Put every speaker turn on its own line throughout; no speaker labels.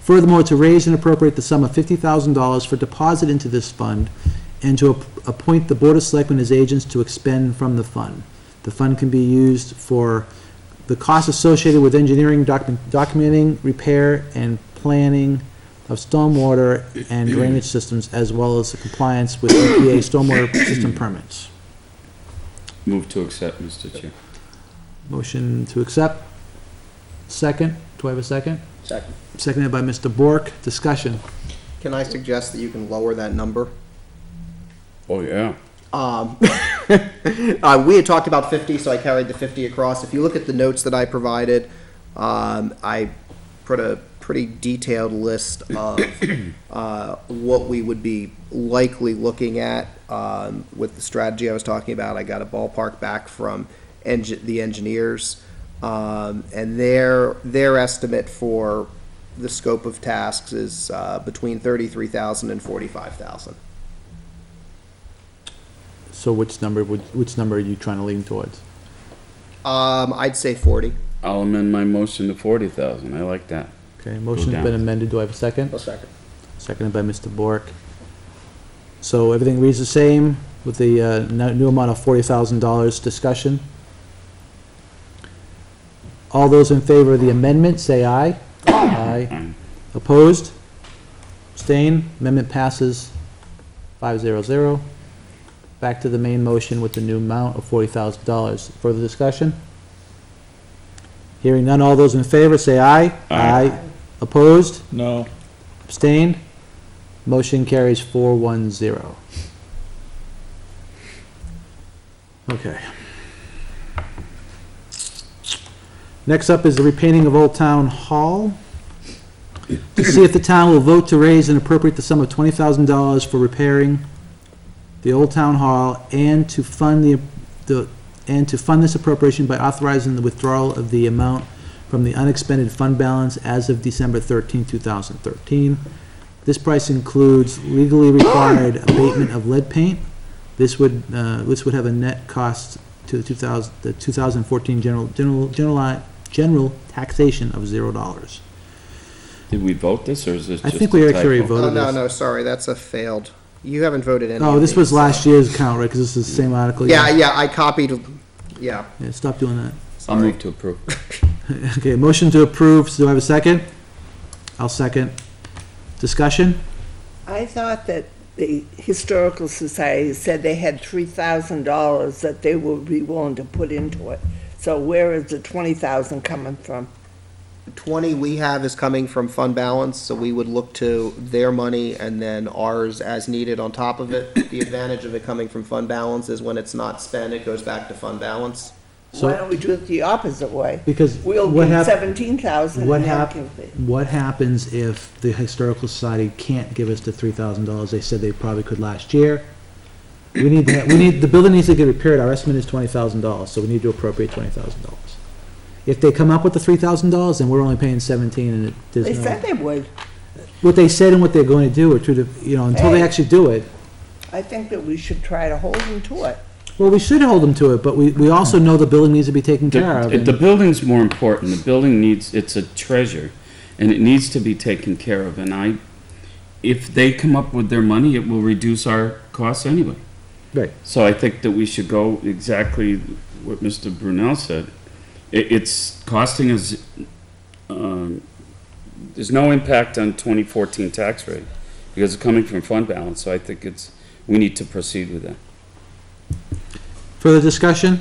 Furthermore, to raise and appropriate the sum of $50,000 for deposit into this fund and to ap- appoint the Board of Selectmen as agents to expend from the fund. The fund can be used for the costs associated with engineering, docu- documenting, repair, and planning of stormwater and drainage systems, as well as the compliance with EPA stormwater system permits.
Move to accept, Mr. Chair.
Motion to accept. Second, do I have a second?
Second.
Seconded by Mr. Bork. Discussion.
Can I suggest that you can lower that number?
Oh, yeah.
Um, uh, we had talked about 50, so I carried the 50 across. If you look at the notes that I provided, um, I put a pretty detailed list of uh, what we would be likely looking at um, with the strategy I was talking about. I got a ballpark back from eng- the engineers, um, and their their estimate for the scope of tasks is uh, between 33,000 and 45,000.
So which number, would which number are you trying to lean towards?
Um, I'd say 40.
I'll amend my motion to forty thousand. I like that.
Okay, motion's been
down.
amended. Do I have a second?
A second.
Seconded by Mr. Bork. So everything reads the same with the uh, no- new amount of $40,000 discussion. All those in favor of the amendment, say aye. Aye. Opposed? Abstain? Amendment passes 500. Back to the main motion with the new amount of $40,000. Further discussion? Hearing none, all those in favor, say aye. Aye. Opposed?
No.
Abstained? Motion carries four one zero. Okay. Next up is the repainting of Old Town Hall. To see if the town will vote to raise and appropriate the sum of twenty thousand dollars for repairing the Old Town Hall and to fund the, the, and to fund this appropriation by authorizing the withdrawal of the amount from the unexpended fund balance as of December 13, 2013. This price includes legally required abatement of lead paint. This would, uh, this would have a net cost to the 2000, the 2014 general, general, general, general taxation of $0.
Did we vote this or is this
I
just?
think we
a
actually
typo?
voted.
Oh, no,
this.
no, sorry, that's a failed. You haven't voted any.
Oh,
of
this was
these.
last year's count, right? Because this is the same article.
Yeah, yeah, I copied, yeah,
Yeah, stop doing that.
I'll
sorry.
move to approve.
Okay, motion to approve, so do I have a second? I'll second. Discussion?
I thought that the Historical Society said they had three thousand dollars that they would be willing to put into it. So where is the twenty thousand coming from?
Twenty we have is coming from fund balance, so we would look to their money and then ours as needed on top of it. The advantage of it coming from fund balance is when it's not spent, it goes back to fund balance.
So-
Why don't we do it the opposite way?
Because
We'll
what
give
hap-
seventeen thousand
What
and they'll
hap,
give it.
what happens if the Historical Society can't give us the three thousand dollars they said they probably could last year? We need, to- we need, the building needs to get repaired, our estimate is twenty thousand dollars, so we need to appropriate twenty thousand dollars. If they come up with the three thousand dollars, then we're only paying seventeen and it,
They
there's
said
no.
they would.
What they said and what they're going to do are two, di- you know, until they
Hey.
actually do it,
I think that we should try to hold them to it.
well, we should hold them to it, but we, we also know the building needs to be taken care of.
The,
and-
the building's more important. The building needs, it's a treasure and it needs to be taken care of. And I, if they come up with their money, it will reduce our costs anyway.
Right.
So I think that we should go exactly what Mr. Brunel said. It, it's costing us, um, there's no impact on twenty fourteen tax rate because it's coming from fund balance. So I think it's, we need to proceed with that.
Further discussion?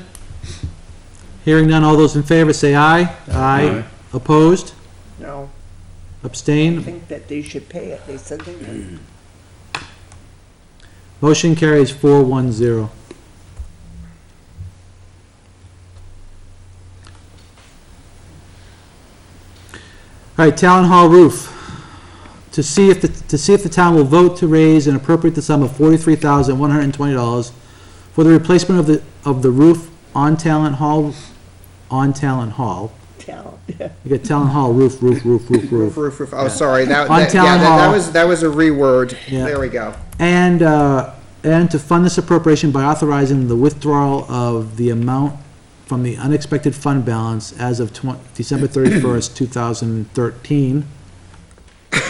Hearing none, all those in favor say aye.
Aye.
Opposed?
No, I
Abstained?
think that they should pay it. They said they would.
Motion carries four one zero. All right, Town Hall roof. To see if, the to see if the town will vote to raise and appropriate the sum of forty-three thousand, one hundred and twenty dollars for the replacement of the, of the roof on Talent Hall, on Talent Hall.
Tell.
You got Town Hall roof, roof, roof, roof, roof.
Roof, roof, roof, oh, sorry, that,
On
that,
Town
yeah, that- that
Hall.
was, that was a reword.
Yeah.
There we go.
And, uh, and to fund this appropriation by authorizing the withdrawal of the amount from the unexpected fund balance as of twen- December thirty-first, two thousand thirteen,